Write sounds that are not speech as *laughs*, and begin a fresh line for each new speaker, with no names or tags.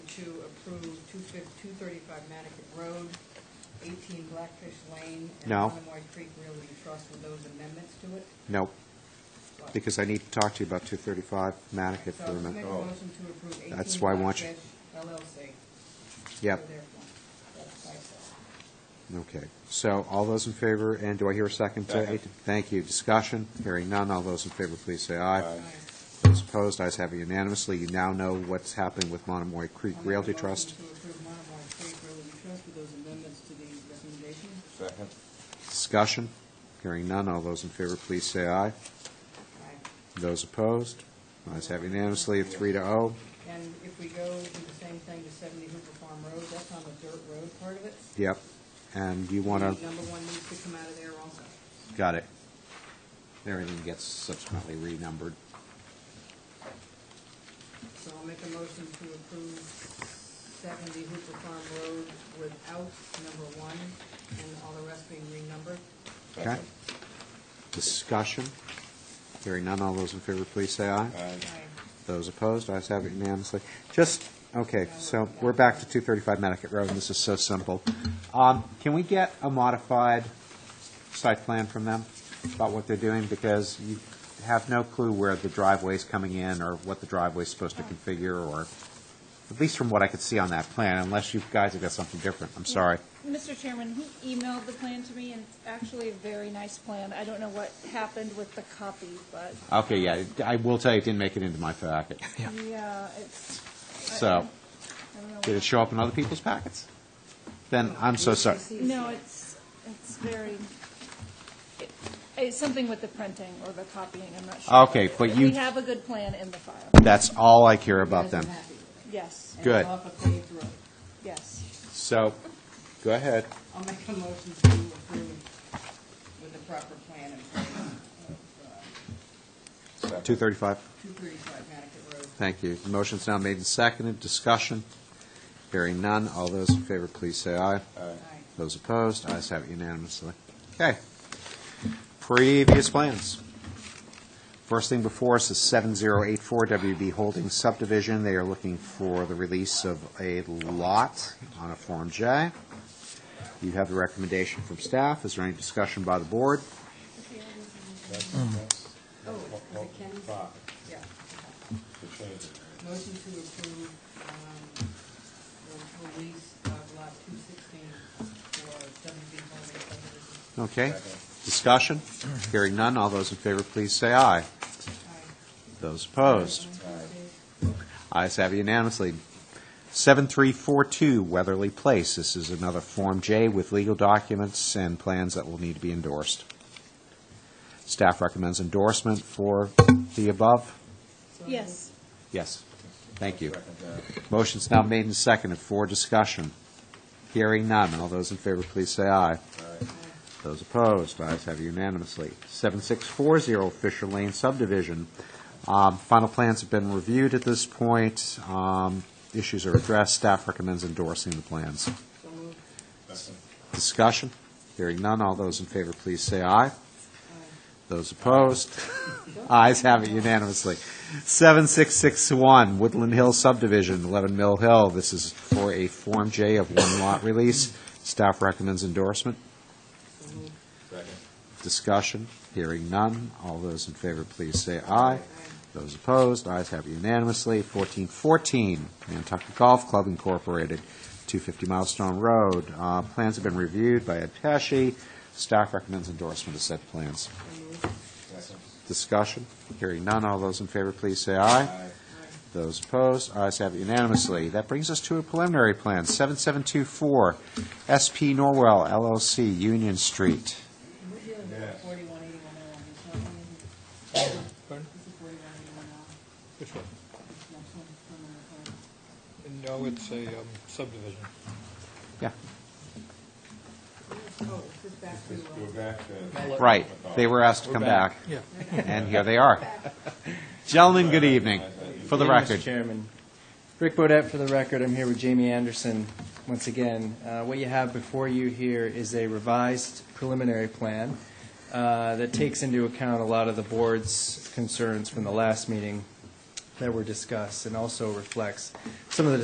approve two fif, two thirty-five Mattocket Road, eighteen Blackfish Lane, and
No.
Monomoy Creek Realty Trust with those amendments to it?
No,
What?
because I need to talk to you about 235 Manicat
So
for a
I'll make
minute.
a motion to approve eighteen
That's why I want you-
Blackfish LLC.
Yep,
for their fund. That's what I said.
okay. So all those in favor, and do I hear a second? to
Second.
eight? Thank you. Discussion, hearing none. All those in favor, please say aye.
Aye.
Those opposed, ayes have it unanimously. You now know what's happening with Monomoy Creek
I'll make a
Realty
motion
Trust.
To approve Monomoy Creek Realty Trust with those amendments to the recommendation.
Second.
Discussion, hearing none. All those in favor, please say aye.
Aye.
Those opposed, ayes have it unanimously, three to oh.
And if we go do the same thing to seventy Hooper Farm Road, that's on the dirt road part of it.
Yep. And you want to,
Number one needs to come out of there also.
got it. Everything gets subsequently renumbered.
So I'll make a motion to approve seventy Hooper Farm Road without number one and all the rest being renumbered.
Okay.
Second.
Discussion, hearing none. All those in favor, please say aye.
Aye.
Those opposed, ayes have it unanimously. Just, okay, so we're back to 235 Medicat Road, and this is so simple. Um, Can we get a modified site plan from them about what they're doing? Because you have no clue where the driveway's coming in, or what the driveway's supposed to configure, or, at least from what I could see on that plan, unless you guys have got something different. I'm sorry.
Mr. Chairman, he emailed the plan to me, and it's actually a very nice plan. I don't know what happened with the copy, but,
Okay, yeah, I will tell you, it didn't make it into my packet.
yeah, it's... I-
So,
I don't know
did it
what-
show up in other people's packets? Then, I'm so sorry.
No, it's, it's very, it- it's something with the printing or the copying, I'm not sure.
Okay, but you-
We have a good plan in the file.
That's all I care about them.
Yes,
Good.
off a paved road.
yes.
So, go ahead.
I'll make a motion to approve with the proper plan in place of
Second.
235.
two thirty-five Mattocket Road.
Thank you. The Motion's now made and seconded. Discussion? Hearing none. All those in favor, please say
Aye.
aye.
Aye.
Those opposed, ayes have it unanimously. Okay. Previous plans. First thing before us is 7084 WB Holdings subdivision. They are looking for the release of a lot on a Form J. You have the recommendation from staff. Is there any discussion by the board?
That's- that's
Oh, is it Ken's?
five,
Yeah.
to change it.
Motion to approve, um, the release of lot two sixteen for WB Holding subdivision.
Okay.
Second.
Discussion? Hearing none. All those in favor, please say aye.
Aye.
Those opposed, Ayes have unanimously. 7342 Weatherly Place. This is another Form J with legal documents and plans that will need to be endorsed. Staff recommends endorsement for the above.
So
Yes.
Yes. Thank you.
Second that.
Motion's now made and seconded for discussion. Hearing none. All those in favor, please say aye.
Aye.
Those opposed, ayes have unanimously. 7640 Fisher Lane subdivision. Um, Final plans have been reviewed at this point. Um, Issues are addressed. Staff recommends endorsing the plans.
So moved.
Second.
Discussion? Hearing none. All those in favor, please say aye. Those opposed, *laughs* ayes have it unanimously. 7661 Woodland Hill subdivision, 11 Mill Hill. This is for a Form J of one lot release. Staff recommends endorsement.
So moved.
Second.
Discussion, hearing none. All those in favor, please say aye. Those opposed, ayes have unanimously. 1414, Nantucket Golf Club Incorporated, 250 Milestone Road. Uh, Plans have been reviewed by Ed Pesci. Staff recommends endorsement of said plans.
So moved.
Second.
Discussion, hearing none. All those in favor, please say aye.
Aye.
Those opposed, ayes have unanimously. That brings us to a preliminary plan, 7724 SP Norwell LLC, Union Street.
We're dealing with
Yes.
forty-one eighty-one oh one, there's not one in here. This is forty-one eighty-one oh one.
Which one?
This next one, preliminary plan.
No, it's a um, subdivision.
Yeah.
Oh, this is back to,
Let's go
uh,
back to.
Right, they were asked to come back.
Yeah.
And here they are. Gentlemen, good evening, for the
Good evening,
record.
Mr. Chairman. Rick Bodett for the record. I'm here with Jamie Anderson once again. Uh, What you have before you here is a revised preliminary plan uh, that takes into account a lot of the board's concerns from the last meeting that were discussed, and also reflects some of the